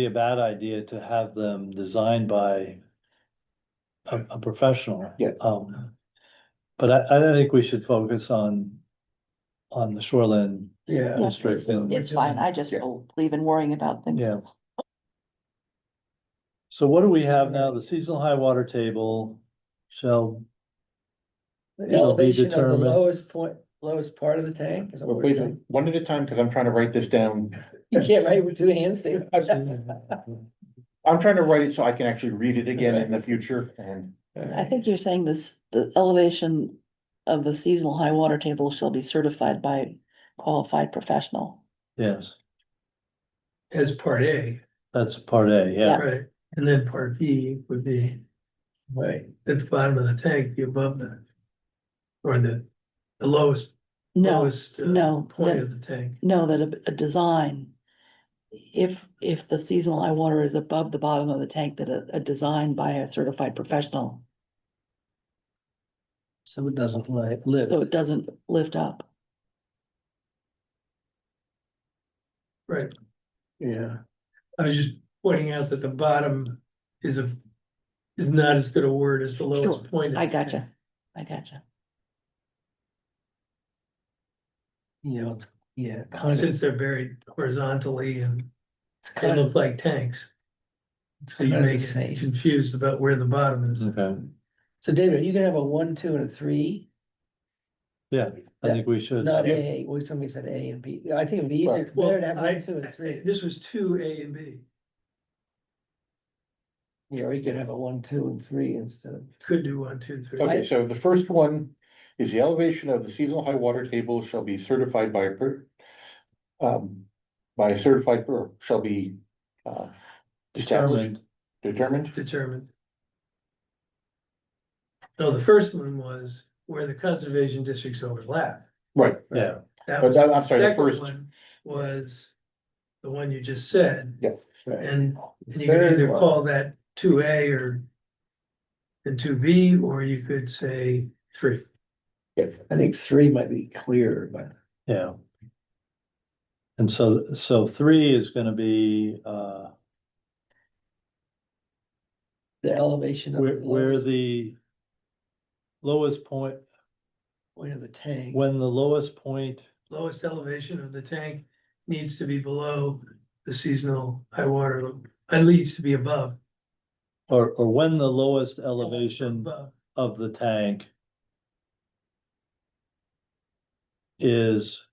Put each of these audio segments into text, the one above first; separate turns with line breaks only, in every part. be a bad idea to have them designed by a, a professional.
Yeah.
Um, but I, I don't think we should focus on, on the shoreline
Yeah.
district and.
It's fine, I just
Yeah.
believe in worrying about things.
Yeah. So what do we have now? The seasonal high water table shall,
The
It'll be
elevation of the
determined.
lowest point, lowest part of the tank. is that what
Well,
we're
please,
doing?
one at a time, because I'm trying to write this down.
You can't write with two hands, David.
I'm trying to write it so I can actually read it again in the future and.
I think you're saying this, the elevation of the seasonal high water table shall be certified by qualified professional.
yes,
as part A,
that's part A, yeah.
right? And then part B would be
Right.
at the bottom of the tank, be above the or the the lowest,
No,
lowest uh,
no,
point
that-
of the tank.
no, that a, a design. If, if the seasonal high water is above the bottom of the tank, that a, a design by a certified professional,
So it doesn't like live.
so it doesn't lift up.
Right.
Yeah.
I was just pointing out that the bottom is a is not as good a word as the
Sure,
lowest point. of
I
the tank.
gotcha, I gotcha.
You know, it's, yeah, kind of,
Since they're buried horizontally and
it's
they
kind of,
look like tanks,
it's
so you
kind of
may
the
get
same.
confused about where the bottom
Mm-hmm.
is.
Okay,
So David, you can have a one, two and a three,
I think we should.
not A, well, somebody said A and B. I think it'd be easier,
Well,
better to have
I-
one, two and three.
This was two A and B,
Yeah, or you could have a one, two and three instead of.
could do one, two, three.
Okay, so the first one is the elevation of the seasonal high water table shall be certified by a per. Um, by a certified per, shall be uh. established,
Determined,
Determined,
determined. No, the first one was where the conservation districts overlap.
right,
yeah,
That
But
was,
that- I'm sorry, the
second
first-
one Was the one you just said,
Right.
and
The
you can
third
either
one-
call that two A or. And two B, or you could say three.
I think three might be clearer, but
yeah. And so, so three is gonna be, uh,
the elevation of.
where,
the
where
lowest
the lowest point,
Point of the tank.
when the lowest point
Lowest elevation of the tank needs to be below the seasonal high water, level. It needs to be above.
Or, or when the lowest elevation
Above,
of the tank is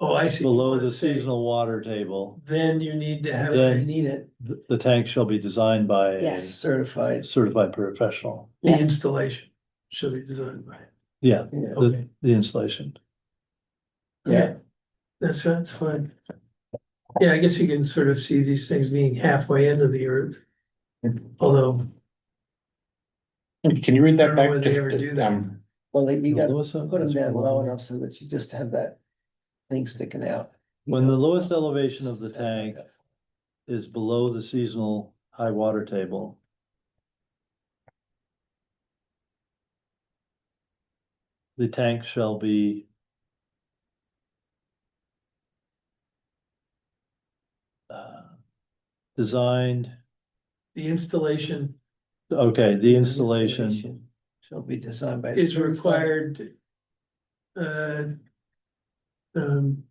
oh, I see.
below the
Say,
seasonal water table,
Then you need to have.
Then-
a-
You need it
the, the tank shall be designed by a
Yes.
certified.
certified professional.
The
Yes.
installation should be designed by,
Yeah,
Yeah.
okay,
the installation.
Yeah.
that's, that's fine. Yeah, I guess you can sort of see these things being halfway into the earth. Although,
can you read
I
that
don't know
back?
whether they
Just,
ever do that.
um,
Well, like, you
The
got
lowest-
put them
that's
down
one.
low enough so that you just have that thing sticking out. you
When the
know?
lowest elevation of the tank is below the seasonal high water table. The tank shall be uh, designed,
the installation
okay, the installation,
Shall be designed by. a
is
certified
required. Uh. Um,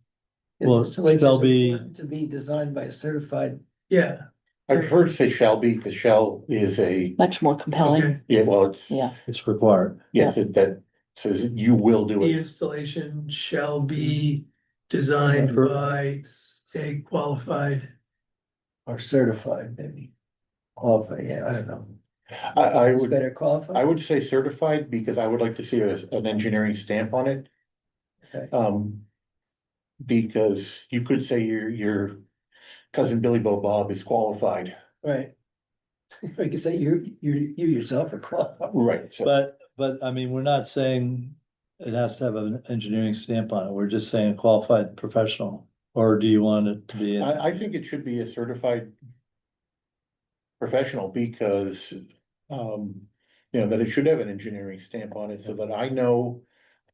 well,
installation
shall
is
be-
required To be designed by a certified,
yeah,
I prefer to say shall be, because shall is a,
Much more compelling,
okay,
yeah, well, it's,
yeah,
it's required.
yes, it- that says you will do
the
it.
installation shall be designed by a qualified,
or certified, maybe. Qualified, yeah, I don't know.
I, I
It's
would.
Better qualified.
I would say certified because I would like to see a, an engineering stamp on it.
Okay.
Um. Because you could say your, your cousin Billy Bo Bob is qualified.
Right. Or you could say you, you, you yourself are qualified.
Right. So,
But, but I mean, we're not saying it has to have an engineering stamp on it. We're just saying qualified professional. Or do you want it to be? in-
I, I think it should be a certified. Professional because, um, you know, that it should have an engineering stamp on it so that I know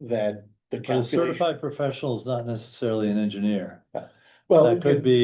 that
But
the
a
calculation.
certified professional is not necessarily an engineer.
Well,
That could be